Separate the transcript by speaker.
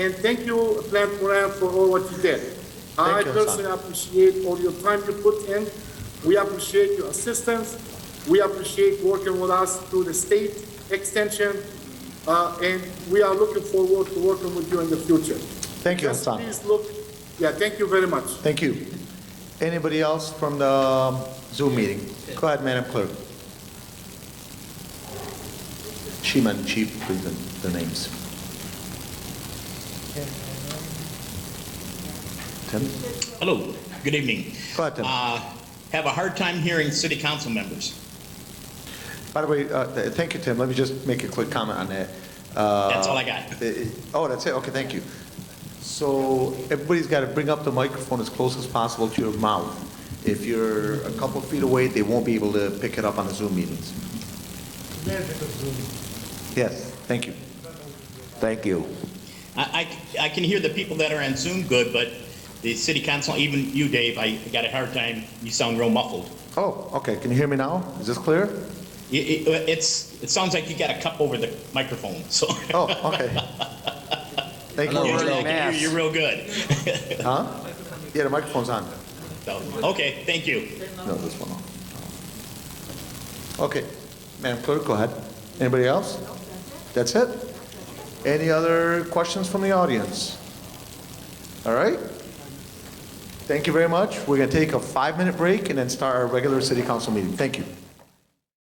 Speaker 1: And thank you, Plant Moran, for all what you did. I
Speaker 2: Thank you, Hassan.
Speaker 1: personally appreciate all your time you put in. We appreciate your assistance. We appreciate working with us through the state extension. Uh, and we are looking forward to working with you in the future.
Speaker 2: Thank you,
Speaker 1: Just
Speaker 2: Hassan.
Speaker 1: Please look, yeah, thank you very much.
Speaker 2: Thank you. Anybody else from the um, Zoom meeting? Go ahead, Madam Clerk. Shiman, Chief, please, the- the names. Tim?
Speaker 3: Hello, good evening.
Speaker 2: Go ahead, Tim.
Speaker 3: Uh, Have a hard time hearing city council members.
Speaker 2: By the way, uh, th- thank you, Tim. Let me just make a quick comment on that.
Speaker 3: That's all I got.
Speaker 2: Uh, Oh, that's it, okay, thank you. So everybody's got to bring up the microphone as close as possible to your mouth. If you're a couple feet away, they won't be able to pick it up on the Zoom meetings. Yes, thank you.
Speaker 4: Thank you.
Speaker 3: I, I, I can hear the people that are on Zoom good, but the city council, even you, Dave, I got a hard time. You sound real muffled.
Speaker 2: Oh, okay, can you hear me now? Is this clear?
Speaker 3: It, it, it's, it sounds like you got a cup over the microphone, so.
Speaker 2: Oh, okay. Thank
Speaker 3: Usually
Speaker 4: Another
Speaker 3: I
Speaker 2: you.
Speaker 4: round.
Speaker 3: can hear
Speaker 4: mass.
Speaker 3: you real good.
Speaker 2: Huh? Yeah, the microphone's on.
Speaker 3: So, Okay, thank you.
Speaker 2: No, this one off. Okay, Madam Clerk, go ahead. Anybody else? That's it? Any other questions from the audience? All right. Thank you very much. We're going to take a five-minute break and then start our regular city council meeting. Thank you.